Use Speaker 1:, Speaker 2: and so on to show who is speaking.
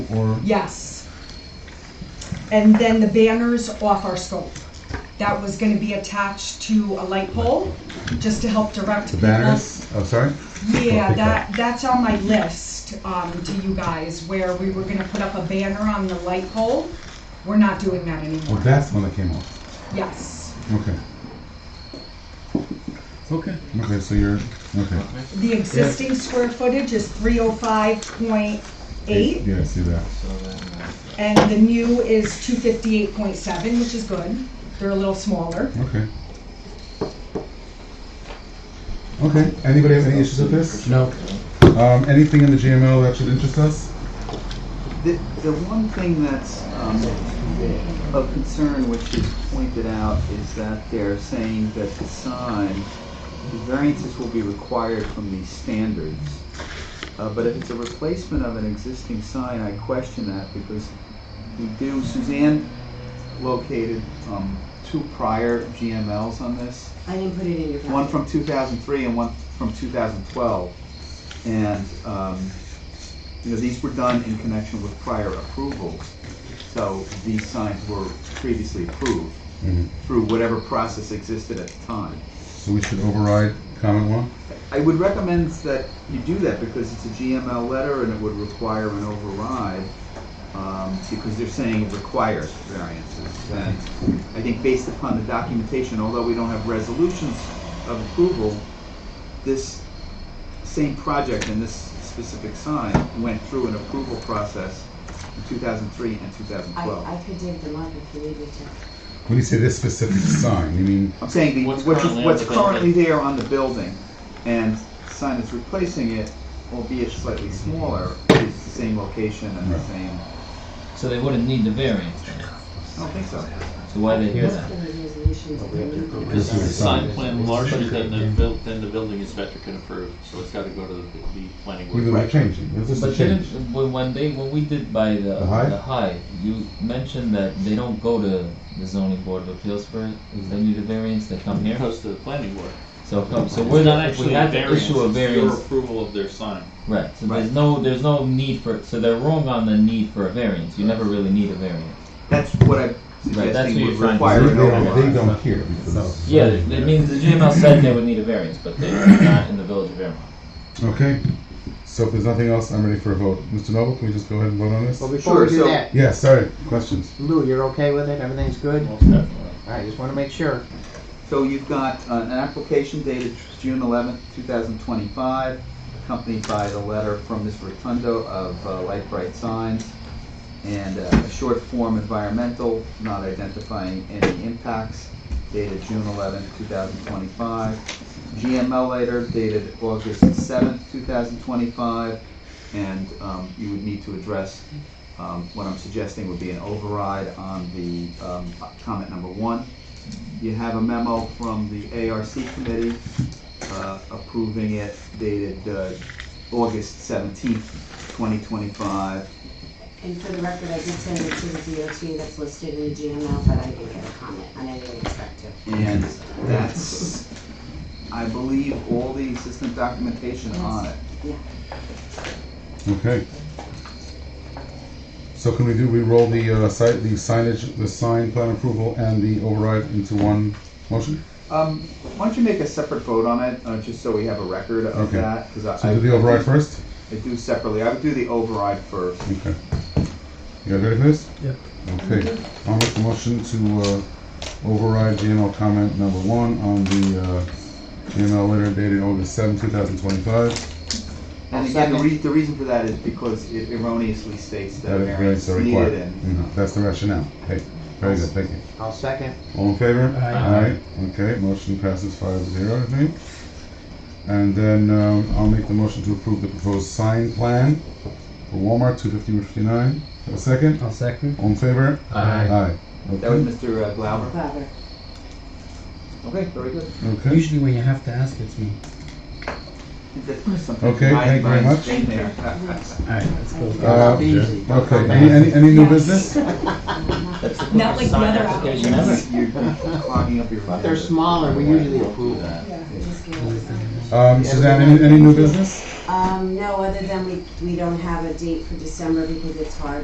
Speaker 1: or?
Speaker 2: Yes. And then the banners off our scope. That was gonna be attached to a light pole, just to help direct
Speaker 1: The
Speaker 2: people.
Speaker 1: banners? Oh, sorry? I'll
Speaker 2: Yeah,
Speaker 1: pick
Speaker 2: that, that's on my list, um, to you guys, where we were gonna put up a banner on the light pole. We're not doing that
Speaker 1: Oh,
Speaker 2: anymore.
Speaker 1: that's the one that came off.
Speaker 2: Yes.
Speaker 1: Okay.
Speaker 3: Okay.
Speaker 1: Okay, so you're, okay.
Speaker 2: The existing square footage is three oh five point eight,
Speaker 1: Yeah, I see that.
Speaker 3: So then, uh,
Speaker 2: and the new is two fifty-eight point seven, which is good. They're a little smaller.
Speaker 1: Okay. Okay, anybody have any issues with this?
Speaker 4: No.
Speaker 1: Um, anything in the GML that should interest us?
Speaker 5: The, the one thing that's um, of concern, which is pointed out, is that they're saying that the sign, the variances will be required from these standards. Uh, But if it's a replacement of an existing sign, I question that because we do, Suzanne located um, two prior GMLs on this
Speaker 6: I didn't put it in your packet.
Speaker 5: one from 2003 and one from 2012. And, um, you know, these were done in connection with prior approvals. So these signs were previously approved
Speaker 1: Mhm.
Speaker 5: through whatever process existed at the time.
Speaker 1: So we should override comment one?
Speaker 5: I would recommend that you do that because it's a GML letter and it would require an override, um, because they're saying it requires variances. And I think based upon the documentation, although we don't have resolutions of approval, this same project and this specific sign went through an approval process in two thousand three and two thousand
Speaker 6: I,
Speaker 5: twelve.
Speaker 6: I could dig them up if you need me to.
Speaker 1: When you say this specific sign, you mean,
Speaker 5: I'm saying the,
Speaker 3: What's
Speaker 5: what's, what's
Speaker 3: currently
Speaker 5: currently,
Speaker 3: on the building.
Speaker 5: there on the building and the sign that's replacing it, albeit slightly smaller, is the same location and the
Speaker 1: Right.
Speaker 5: same.
Speaker 7: So they wouldn't need the variance then?
Speaker 5: I don't think so.
Speaker 7: So why they hear
Speaker 6: Just
Speaker 7: that?
Speaker 6: give me resolutions if you need me.
Speaker 1: this is a
Speaker 3: The sign
Speaker 1: sign?
Speaker 3: plan larger than the buil, than the building inspector can approve, so it's gotta go to the, the planning
Speaker 1: We're
Speaker 3: board.
Speaker 1: not changing, it's just a
Speaker 7: But
Speaker 1: change.
Speaker 7: didn't, when when they, when we did by the,
Speaker 1: The high?
Speaker 7: the high, you mentioned that they don't go to the zoning board of appeals for it,
Speaker 1: Mm-hmm.
Speaker 7: if they need a variance, they come
Speaker 3: It
Speaker 7: here?
Speaker 3: goes to the planning board.
Speaker 7: So come, so
Speaker 3: It's
Speaker 7: we're
Speaker 3: not
Speaker 7: not, if we
Speaker 3: actually a
Speaker 7: had to
Speaker 3: variance,
Speaker 7: issue a
Speaker 3: it's your
Speaker 7: variance,
Speaker 3: approval of their sign.
Speaker 7: right, so
Speaker 5: Right.
Speaker 7: there's no, there's no need for, so they're wrong on the need for a variance, you never really need a variance.
Speaker 5: That's what I'm
Speaker 7: Right, that's what
Speaker 5: suggesting
Speaker 7: you're
Speaker 5: would
Speaker 7: trying to
Speaker 1: They
Speaker 5: require
Speaker 7: do.
Speaker 5: an
Speaker 1: don't, they
Speaker 5: override.
Speaker 1: don't care because.
Speaker 7: Yeah, it means the GML said they would need a variance, but they're not in the village of Vermont.
Speaker 1: Okay, so if there's nothing else, I'm ready for a vote. Mr. Noble, can we just go ahead and vote on this?
Speaker 4: Well, before
Speaker 5: Sure,
Speaker 4: we do
Speaker 5: so-
Speaker 4: that,
Speaker 1: Yeah, sorry, questions?
Speaker 4: Lou, you're okay with it? Everything's good?
Speaker 7: Most definitely.
Speaker 4: I just want to make sure.
Speaker 5: So you've got uh, an application dated June eleventh, two thousand twenty-five, accompanied by the letter from Ms. Rotundo of uh, Light Bright Signs, and uh, a short form environmental, not identifying any impacts, dated June eleventh, two thousand twenty-five. GML later dated August seventh, two thousand twenty-five, and um, you would need to address, um, what I'm suggesting would be an override on the um, comment number one. You have a memo from the ARC committee uh, approving it dated uh, August seventeenth, twenty twenty-five.
Speaker 6: And for the record, I did send it to the DOT that's listed in the GML, but I didn't get a comment, and I didn't expect to.
Speaker 5: And that's, I believe, all the existing documentation on it.
Speaker 1: Okay. So can we do, we roll the, uh, site, the signage, the sign plan approval and the override into one motion?
Speaker 5: Um, Why don't you make a separate vote on it, uh, just so we have a record of
Speaker 1: Okay.
Speaker 5: that? 'cause I-
Speaker 1: So do the override first?
Speaker 5: I do separately. I would do the override first.
Speaker 1: Okay. You guys ready for this?
Speaker 4: Yep.
Speaker 1: Okay, I'll make the motion to, uh, override GML comment number one on the, uh, GML letter dated August seventh, two thousand twenty-five.
Speaker 5: And again, the rea- the reason for that is because it erroneously states that
Speaker 1: That is very,
Speaker 5: variance
Speaker 1: so
Speaker 5: is
Speaker 1: required.
Speaker 5: needed and
Speaker 1: Mhm, That's the rationale. Hey, very good, thank you.
Speaker 4: I'll second.
Speaker 1: All in favor?
Speaker 4: Aye.
Speaker 1: Aye. Okay, motion passes five zero, I think. And then um, I'll make the motion to approve the proposed sign plan for Walmart, two fifty Route fifty-nine. Have a second?
Speaker 4: I'll second.
Speaker 1: All in favor?
Speaker 4: Uh,
Speaker 1: Aye.
Speaker 5: That was
Speaker 1: Okay.
Speaker 5: Mr. uh, Glauber.
Speaker 6: Clever.
Speaker 5: Okay, very good.
Speaker 1: Okay.
Speaker 4: when you have to ask, it's me.
Speaker 5: That's something
Speaker 1: Okay,
Speaker 5: my-
Speaker 1: thank you very
Speaker 5: my
Speaker 1: much.
Speaker 5: thing there. Uh,
Speaker 4: All right, let's go.
Speaker 1: Uh,
Speaker 4: Easy.
Speaker 1: Okay, any, any, any new business?
Speaker 7: That's the
Speaker 2: Not like
Speaker 7: quickest
Speaker 2: the
Speaker 7: sign
Speaker 2: other
Speaker 7: application ever.
Speaker 2: applicants.
Speaker 5: You're clogging up your.
Speaker 4: But they're smaller, we usually approve them.
Speaker 2: Yeah.
Speaker 6: Just give us some-
Speaker 1: Um, Suzanne, any, any new business?
Speaker 6: Um, no, other than we, we don't have a date for December because it's hard